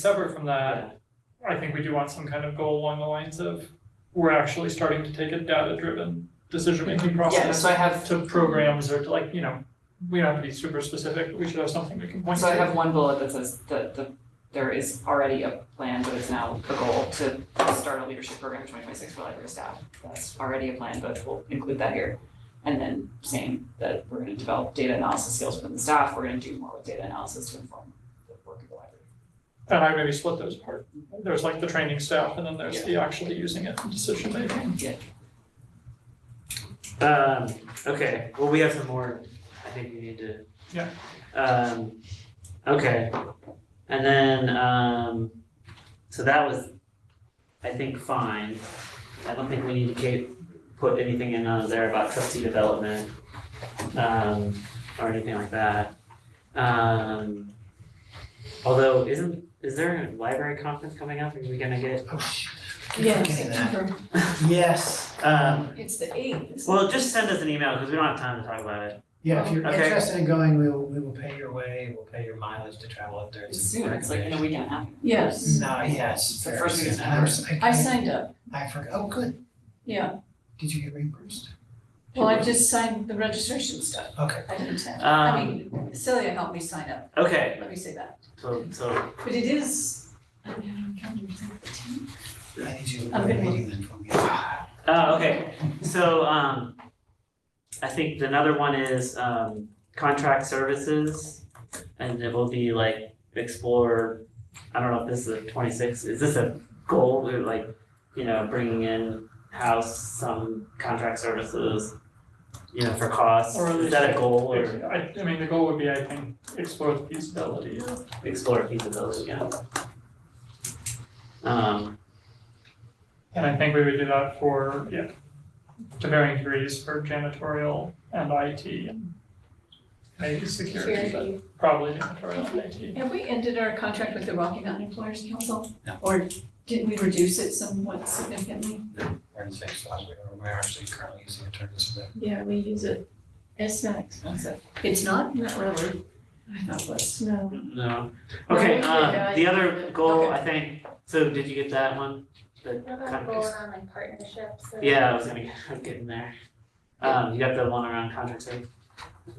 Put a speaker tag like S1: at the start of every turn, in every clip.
S1: Separate from that, I think we do want some kind of goal along the lines of, we're actually starting to take a data-driven decision-making
S2: Yeah,
S1: process
S2: so I have,
S1: to programs or to like, you know, we don't have to be super specific, but we should have something we can point to.
S2: so I have one bullet that says that the, there is already a plan, but it's now the goal to start a leadership program in twenty twenty-six for library staff. That's already a plan, but we'll include that here. And then saying that we're gonna develop data analysis skills within the staff, we're gonna do more with data analysis to inform the work of the library.
S1: And I maybe split those apart. There's like the training staff and then there's the actually using it in decision-making.
S3: Um, okay, well, we have some more, I think we need to.
S1: Yeah.
S3: Um, okay, and then, um, so that was, I think, fine. I don't think we need to ca- put anything in uh, there about trustee development, um, or anything like that. Um, although, isn't, is there a library conference coming up, are we gonna get?
S4: Yes,
S3: Yes. Um,
S4: it's the eighth.
S3: well, just send us an email, because we don't have time to talk about it.
S5: Yeah, if you're
S3: Okay.
S5: interested in going, we will, we will pay your way, we'll pay your mileage to travel up there.
S2: It's soon, it's like in a week and a half.
S4: Yes,
S5: No, yes.
S2: It's the first
S5: very
S2: week of
S5: soon.
S2: September.
S5: I'm-
S4: I signed up,
S5: I forgot, oh, good,
S4: yeah.
S5: did you get reimbursed?
S4: Well, I just signed the registration stuff.
S5: Okay.
S4: I didn't attend. I
S3: Um,
S4: mean, Celia helped me sign up,
S3: okay,
S4: let me say that.
S3: so, so,
S4: But it is, I don't have a calendar, is it the 10th?
S5: I need you to
S4: I'm
S5: go to
S4: good.
S5: the meeting then for me. Ah,
S3: uh, okay, so, um, I think another one is, um, contract services. And it will be like explore, I don't know if this is a twenty-six, is this a goal, We're like, you know, bringing in house some contract services? You know, for costs,
S1: Or at
S3: is that a
S1: least-
S3: goal or
S1: I, I mean, the goal would be, I think, explore the feasibility of
S3: explore feasibility, yeah? Um,
S1: And I think we would do that for, yeah, to varying degrees for janitorial and IT and maybe security,
S4: Security.
S1: but probably janitorial and IT.
S4: Have we ended our contract with the Rocky Mountain Employers Council?
S5: No.
S4: Or didn't we reduce it somewhat significantly?
S5: We're in the same spot, we are- we're actually currently using attorneys for that.
S6: Yeah, we use it as snacks.
S2: That's it.
S4: It's not, not really. I thought it was.
S6: No.
S3: No.
S6: No, we
S3: Okay,
S6: did
S3: um,
S6: that.
S3: the other goal,
S4: Okay.
S3: I think, so did you get that one? The
S6: I'm
S3: kind
S6: going
S3: of-
S6: on like partnerships or.
S3: Yeah, I was gonna, I'm getting there. Um, you got the one around contract service?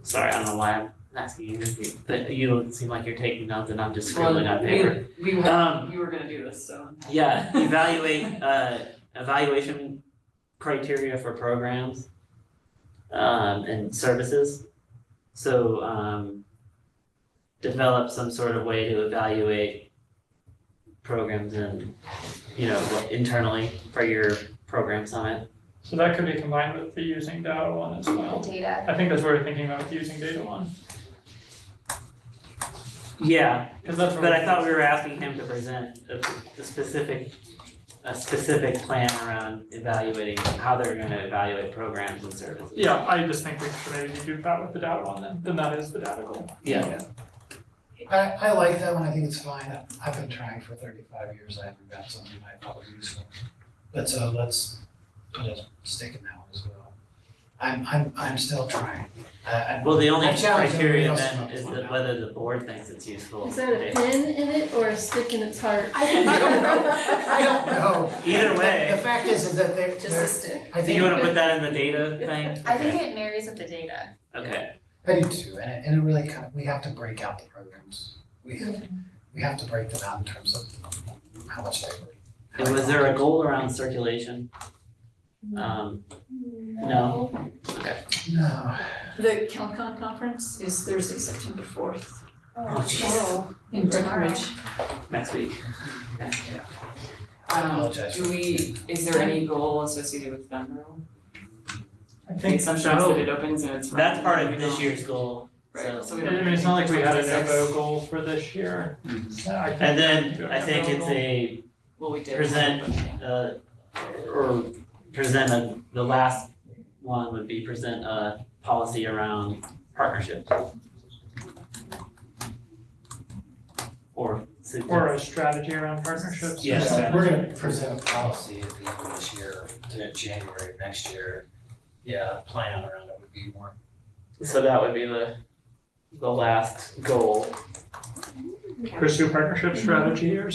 S3: Sorry, I don't know why I'm asking you, this, but you don't seem like you're taking notes and I'm just scribbling on paper.
S2: Well, we, we were,
S3: Um,
S2: you were gonna do this, so.
S3: Yeah, evaluate, uh, evaluation criteria for programs, um, and services. So, um, develop some sort of way to evaluate programs and, you know, what- internally for your program summit.
S1: So that could be combined with the using data one as
S6: The
S1: well.
S6: data.
S1: I think that's what we're thinking about with the using data one,
S3: Yeah,
S1: because that's what.
S3: but I thought we were asking him to present a, a specific, a specific plan around evaluating how they're gonna evaluate programs and services.
S1: Yeah, I just think we should maybe do that with the data one then, then that is the data goal.
S3: Yeah.
S5: I, I like that one, I think it's fine, I've been trying for thirty-five years, I haven't got something I probably use for. But so let's put a stick in that one as well. I'm, I'm, I'm still trying, I, I,
S3: Uh, Well, the only
S5: I challenge
S3: criteria
S5: everybody else
S3: then
S5: to
S3: is
S5: vote
S3: that
S5: now.
S3: whether the board thinks it's useful.
S6: Is that a pin in it or a stick in its heart?
S5: I don't know. I don't know.
S3: Either way.
S5: The fact is, is that they're,
S4: Just
S5: they're-
S4: a stick.
S5: I
S3: Do you
S5: think,
S3: wanna put that in the data thing?
S6: I think it marries with the data.
S3: Okay,
S5: I do too, and it, and it really kind of, we have to break out the programs. We have, we have to break them out in terms of how much they really.
S3: and was there a goal around circulation? Um, No.
S5: No,
S4: The CalCon conference is Thursday, September fourth
S6: Oh,
S4: jeez. in
S6: Tomorrow.
S4: Breckenridge.
S3: next week,
S5: I apologize.
S2: Um, do we, is there any goal associated with Venmo?
S1: I
S2: Like
S1: think,
S2: sometimes that it opens and it's.
S3: that's part of
S2: random,
S3: this year's goal,
S2: Right,
S3: so.
S2: so
S1: I
S2: we don't.
S1: mean, it's not like we had a
S2: Twenty-six.
S1: Novo goal for this year.
S3: Mm-hmm.
S1: I think-
S3: And then I think it's a,
S2: Well, we did.
S3: Present. uh, or present a, the last one would be present a policy around partnership. Or.
S1: Or a strategy around partnerships.
S3: Yes.
S5: Yeah, We're gonna present a policy at the end of this year, to January of next year. Yeah, a plan around it would be more.
S3: So that would be the, the last goal. Mm-hmm.
S1: Pursue partnership strategy or